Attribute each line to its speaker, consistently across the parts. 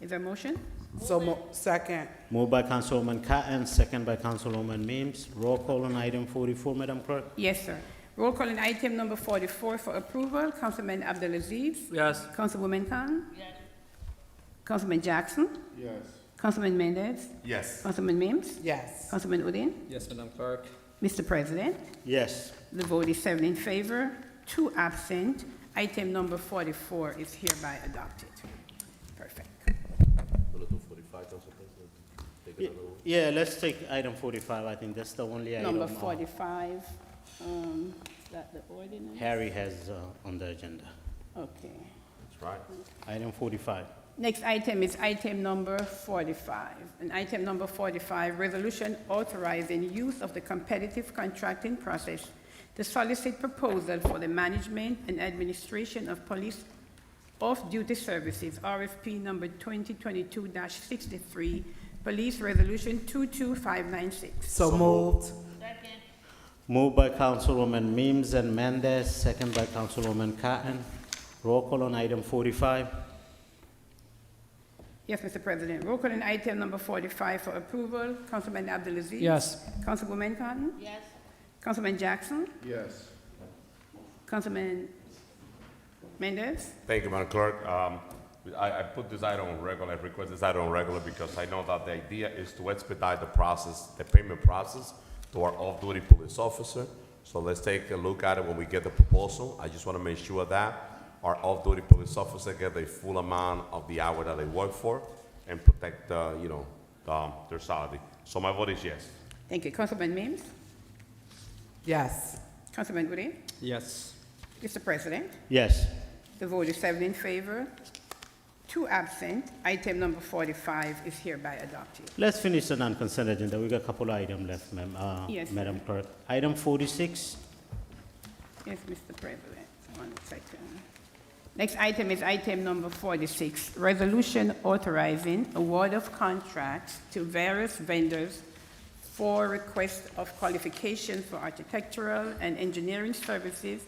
Speaker 1: Is there a motion?
Speaker 2: So mo, second,
Speaker 3: Moved by Councilwoman Cotton, second by Councilwoman Mims. Roll call on item forty-four, Madam Clerk.
Speaker 1: Yes, sir. Roll call on item number forty-four for approval, Councilman Abdelaziz.
Speaker 4: Yes.
Speaker 1: Councilwoman Khan. Councilman Jackson. Yes. Councilman Mendez.
Speaker 5: Yes.
Speaker 1: Councilman Mims.
Speaker 2: yes.
Speaker 1: Councilman Udine.
Speaker 4: Yes, Madam Clerk.
Speaker 1: Mr. President,
Speaker 3: Yes.
Speaker 1: the vote is seven in favor, two absent. Item number forty-four is hereby adopted. Perfect.
Speaker 3: Yeah, let's take item forty-five. I think that's the only item.
Speaker 1: Number
Speaker 3: uh,
Speaker 1: forty-five, um, is that the ordinance?
Speaker 3: Harry has uh, on the agenda.
Speaker 1: Okay.
Speaker 5: That's right.
Speaker 3: Item forty-five.
Speaker 1: Next item is item number 45. And item number 45, resolution authorizing use of the competitive contracting process to solicit proposal for the management and administration of police off-duty services, RFP number 2022-63, Police Resolution 22596.
Speaker 2: So moved,
Speaker 3: Moved by Councilwoman Mims and Mendez, second by Councilwoman Cotton. Roll call on item forty-five.
Speaker 1: Yes, Mr. President, roll call on item number 45 for approval. Councilman Abdulaziz?
Speaker 4: Yes.
Speaker 1: Councilwoman Cotton? Yes. Councilman Jackson? Yes. Councilman Mendez?
Speaker 5: Thank you, Madam Clerk. Um, I, I put this item on regular, I request this item on regular because I know that the idea is to expedite the process, the payment process to our off-duty police officer. So let's take a look at it when we get the proposal. I just want to make sure that our off-duty police officer get the full amount of the hour that they work for and protect, uh, you know, um, their salary. So my vote is yes.
Speaker 1: Thank you. Councilman Mims?
Speaker 2: yes.
Speaker 1: Councilman Woody?
Speaker 4: Yes.
Speaker 1: Mr. President,
Speaker 3: Yes.
Speaker 1: the vote is seven in favor, two absent. Item number 45 is hereby adopted.
Speaker 3: Let's finish the non-consent agenda. We got a couple of items left, ma'am, uh,
Speaker 1: Yes.
Speaker 3: Madam Clerk. Item forty-six.
Speaker 1: Yes, Mr. President, one second. Next item is item number 46, resolution authorizing award of contracts to various vendors for request of qualification for architectural and engineering services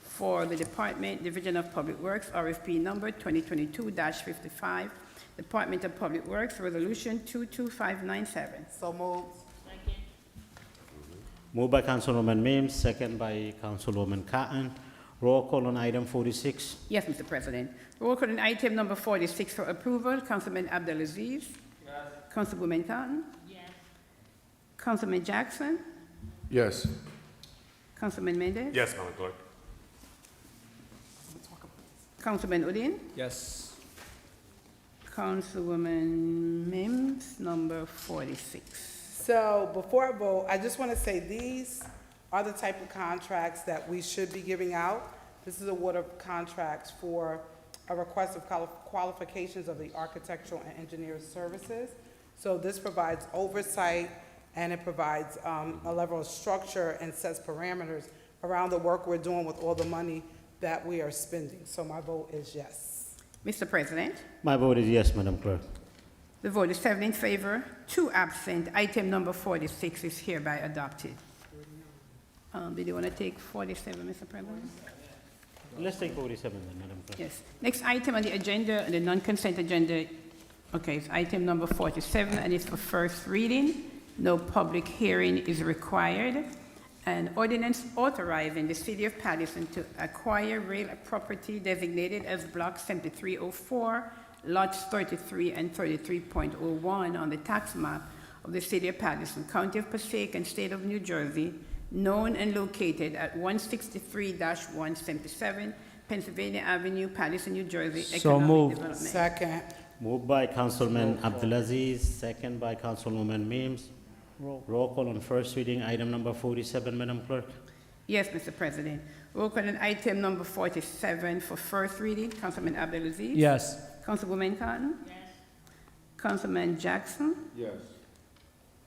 Speaker 1: for the Department, Division of Public Works, RFP number 2022-55, Department of Public Works, Resolution 22597.
Speaker 2: So moved,
Speaker 3: Moved by Councilwoman Mims, second by Councilwoman Cotton. Roll call on item forty-six.
Speaker 1: Yes, Mr. President. Roll call on item number 46 for approval, Councilman Abdelaziz. Councilwoman Cotton. Yes. Councilman Jackson.
Speaker 5: Yes.
Speaker 1: Councilman Mendez.
Speaker 5: Yes, Madam Clerk.
Speaker 1: Councilman Udine.
Speaker 4: Yes.
Speaker 1: Councilwoman Mims, number 46.
Speaker 2: So before I vote, I just want to say these are the type of contracts that we should be giving out. This is a award of contracts for a request of quali- qualifications of the architectural and engineering services. So this provides oversight and it provides um, a level of structure and sets parameters around the work we're doing with all the money that we are spending. So my vote is yes.
Speaker 1: Mr. President,
Speaker 3: My vote is yes, Madam Clerk.
Speaker 1: the vote is seven in favor, two absent. Item number 46 is hereby adopted. Um, Did you want to take 47, Mr. President?
Speaker 3: Let's take forty-seven then, Madam Clerk.
Speaker 1: Yes. Next item on the agenda, on the non-consent agenda, okay, it's item number 47, and it's for first reading. No public hearing is required. An ordinance authorizing the city of Patterson to acquire real property designated as Block 7304, lots 33 and 33.01 on the tax map of the city of Patterson, county of Passaic, and state of New Jersey, known and located at 163-177 Pennsylvania Avenue, Patterson, New Jersey.
Speaker 4: So
Speaker 1: Economic
Speaker 4: moved.
Speaker 1: Development.
Speaker 2: Second,
Speaker 3: Moved by Councilman Abdulaziz, second by Councilwoman Mims. Roll call on first reading, item number forty-seven, Madam Clerk.
Speaker 1: Yes, Mr. President. Roll call on item number 47 for first reading, Councilman Abdelaziz.
Speaker 4: Yes.
Speaker 1: Councilwoman Cotton. Yes. Councilman Jackson. Yes.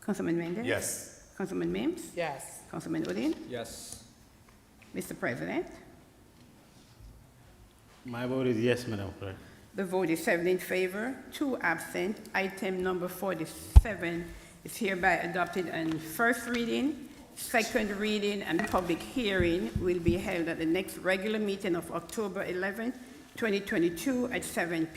Speaker 1: Councilman Mendez.
Speaker 5: Yes.
Speaker 1: Councilman Mims.
Speaker 2: yes.
Speaker 1: Councilman Udine.
Speaker 4: Yes.
Speaker 1: Mr. President,
Speaker 3: My vote is yes, Madam Clerk.
Speaker 1: the vote is seven in favor, two absent. Item number 47 is hereby adopted on first reading. Second reading and public hearing will be held at the next regular meeting of October 11, 2022 at 7